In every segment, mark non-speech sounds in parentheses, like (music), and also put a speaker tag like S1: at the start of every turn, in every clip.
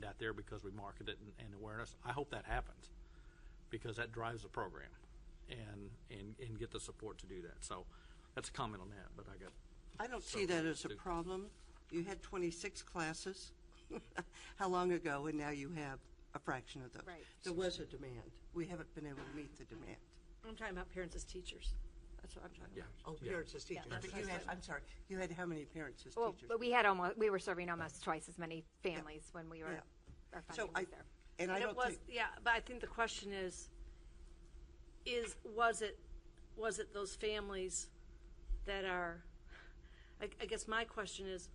S1: that there because we market it and, and awareness. I hope that happens because that drives the program and, and, and get the support to do that. So that's a comment on that, but I got.
S2: I don't see that as a problem. You had 26 classes (laughs) how long ago, and now you have a fraction of those.
S3: Right.
S2: There was a demand. We haven't been able to meet the demand.
S3: I'm talking about parents as teachers. That's what I'm talking
S1: Yeah.
S3: about.
S2: Oh,
S1: yeah.
S2: parents as teachers.
S3: that's
S2: But you
S3: what I
S2: had,
S3: said.
S2: I'm sorry, you had how many parents as
S4: Well,
S2: teachers?
S4: but we had almost, we were serving almost twice as many families when we were,
S2: Yeah.
S4: our
S2: So
S4: funding
S2: I,
S4: was there.
S2: and I
S3: And
S2: don't
S3: it was,
S2: think,
S3: yeah, but I think the question is, is, was it, was it those families that are, I, I guess my question is,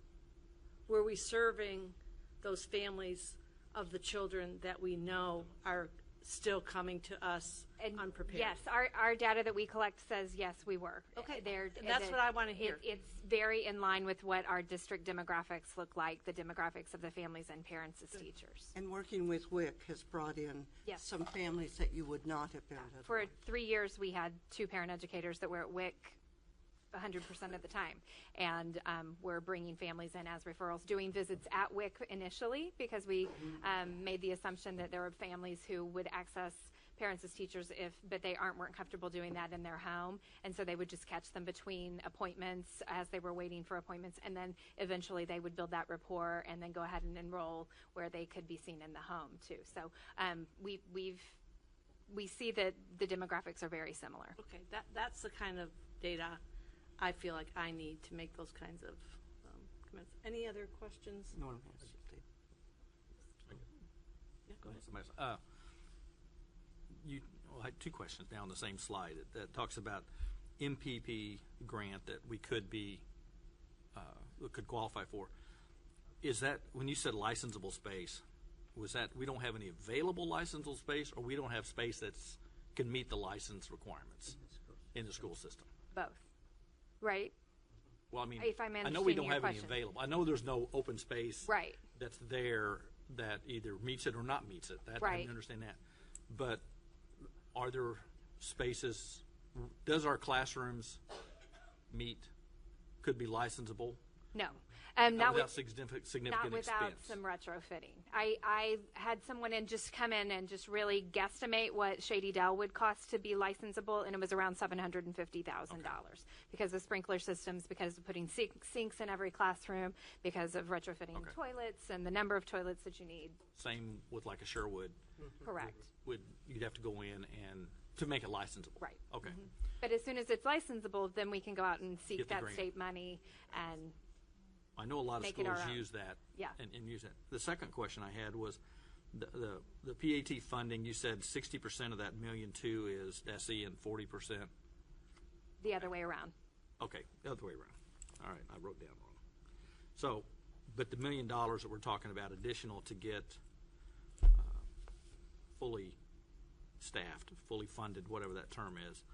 S3: were we serving those families of the children that we know are still coming to us
S4: And
S3: unprepared?
S4: Yes, our, our data that we collect says, yes, we were.
S3: Okay,
S4: There-
S3: and that's
S4: it-
S3: what I wanna
S4: it-
S3: hear.
S4: It's very in line with what our district demographics look like, the demographics of the families and parents as teachers.
S2: and working with WIC has brought in
S4: Yes.
S2: some families that you would not have been able to.
S4: For three years, we had two parent educators that were at WIC 100% of the time. And um, we're bringing families in as referrals, doing visits at WIC initially because we um, made the assumption that there were families who would access parents as teachers if, but they aren't, weren't comfortable doing that in their home. And so they would just catch them between appointments as they were waiting for appointments. And then eventually they would build that rapport and then go ahead and enroll where they could be seen in the home too. So um, we, we've, we see that the demographics are very similar.
S3: Okay, that, that's the kind of data I feel like I need to make those kinds of um, comments. Any other questions?
S2: Norm has something.
S3: Yeah, go ahead.
S1: Uh, You, well, I had two questions now on the same slide that- that talks about MPP grant that we could be, uh, we could qualify for. Is that, when you said licensable space, was that, we don't have any available licensable space, or we don't have space that's, can meet the license requirements in the school system?
S4: Both, right?
S1: Well, I mean,
S4: If I'm
S1: I know we
S4: understanding
S1: don't
S4: your
S1: have any
S4: question.
S1: available. I know there's no open space.
S4: Right.
S1: That's there that either meets it or not meets it. That, I
S4: Right.
S1: understand that. But are there spaces, does our classrooms meet, could be licensable?
S4: No, um, not
S1: Without
S4: with,
S1: significant, significant
S4: not without
S1: expense?
S4: some retrofitting. I, I had someone in just come in and just really guesstimate what Shady Dell would cost to be licensable, and it was around seven hundred and fifty thousand dollars because of sprinkler systems, because of putting sink, sinks in every classroom, because of retrofitting
S1: Okay.
S4: toilets and the number of toilets that you need.
S1: Same with like a Sherwood,
S4: Correct.
S1: would, you'd have to go in and, to make it licensable?
S4: Right. Mm-hmm.
S1: Okay.
S4: But as soon as it's licensable, then we can go out and
S1: Get
S4: seek
S1: the
S4: that
S1: grant.
S4: state money and
S1: I know a lot of
S4: Make it our
S1: schools
S4: own.
S1: use that.
S4: Yeah.
S1: And, and use that. The second question I had was, the, the, the PAT funding, you said sixty percent of that million two is SE and forty percent,
S4: the other way around.
S1: okay, the other way around. All right, I wrote down wrong. So, but the million dollars that we're talking about additional to get, uh, fully staffed, fully funded, whatever that term is.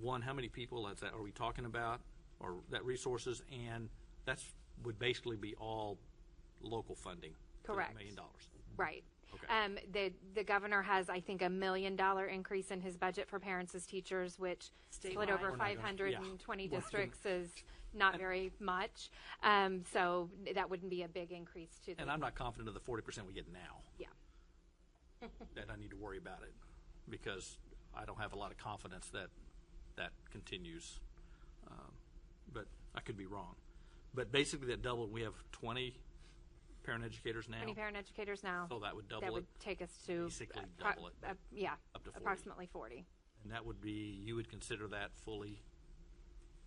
S1: One, how many people that's, that are we talking about, or that resources, and that's, would basically be all local funding. for that
S4: Correct.
S1: Million dollars.
S4: Right.
S1: Okay.
S4: Um, the, the governor has, I think, a million dollar increase in his budget for parents as teachers, which split
S3: Statewide.
S4: over
S3: We're
S1: not gonna-
S4: five
S1: yeah.
S4: hundred and twenty
S1: We're gonna-
S4: districts is not very much. Um, so that wouldn't be a big increase to
S1: And
S4: the,
S1: I'm not confident of the forty percent we get now,
S4: yeah.
S1: that I need to worry about it, because I don't have a lot of confidence that that continues. Um, But I could be wrong. But basically that doubled, we have twenty parent educators now.
S4: Any parent educators now?
S1: So that would double
S4: That
S1: it.
S4: would take us to.
S1: Basically
S4: appro-
S1: double it.
S4: uh, Yeah,
S1: Up to 40.
S4: approximately forty.
S1: And that would be, you would consider that fully,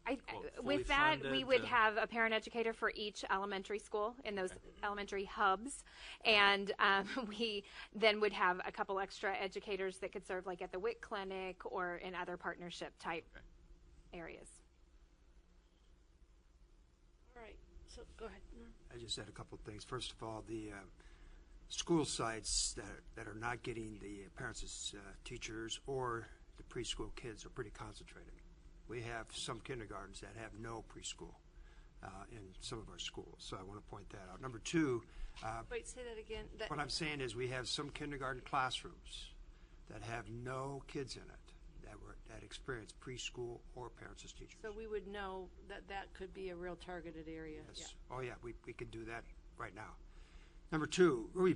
S4: I, uh,
S1: Well, fully
S4: with that, we
S1: funded,
S4: would
S1: uh,
S4: have a parent educator for each elementary school in those elementary hubs, and um, (laughs) we then would have a couple extra educators that could serve, like at the WIC clinic or in other partnership type
S1: Okay.
S4: areas.
S3: All right, so go ahead, Norm.
S5: I just had a couple of things. First of all, the uh, school sites that are, that are not getting the parents as uh, teachers or the preschool kids are pretty concentrated. We have some kindergartens that have no preschool uh, in some of our schools, so I want to point that out. Number two, uh,
S3: Wait, say that again. That-
S5: what I'm saying is we have some kindergarten classrooms that have no kids in it that were that experience preschool or parents as teachers.
S3: So we would know that that could be a real targeted area. Yeah.
S5: yes. Oh yeah, we we could do that right now. Number two, really